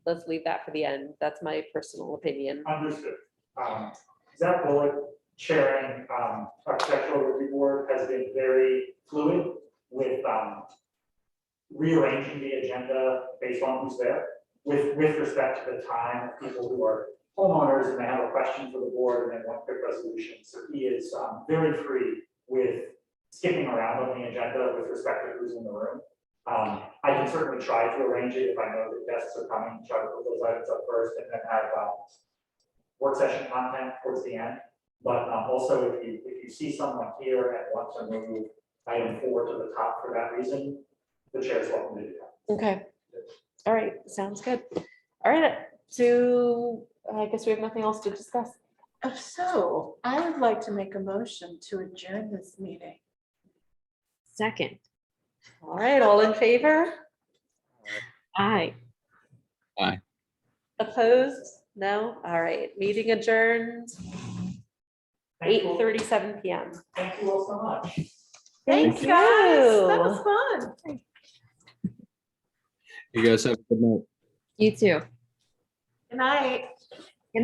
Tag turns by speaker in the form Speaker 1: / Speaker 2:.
Speaker 1: let's leave that for the end. That's my personal opinion.
Speaker 2: Understood. Um, Zach Bullock, chairing um, architectural review board, has been very fluid with um, rearranging the agenda based on who's there, with, with respect to the time, of people who are homeowners and they have a question for the board and they want quick resolution. So he is um, very free with skipping around on the agenda with respect to who's in the room. Um, I can certainly try to arrange it if I know that guests are coming, try to put those items up first and then have um, work session content towards the end. But um, also, if you, if you see someone here and want to move item four to the top for that reason, the chair is welcome to do that.
Speaker 1: Okay. All right, sounds good. All right, so I guess we have nothing else to discuss.
Speaker 3: If Oh, so, I would like to make a motion to adjourn this meeting.
Speaker 1: Second. All right, all in favor? Aye.
Speaker 4: Aye.
Speaker 1: Opposed? No? All right, meeting adjourned,
Speaker 2: Thank
Speaker 1: eight
Speaker 2: you all-
Speaker 1: thirty-seven PM.
Speaker 2: Thank you all so much.
Speaker 3: Thanks, guys. That was
Speaker 1: you.
Speaker 3: fun.
Speaker 4: You guys have a good night.
Speaker 5: You too.
Speaker 3: Good night.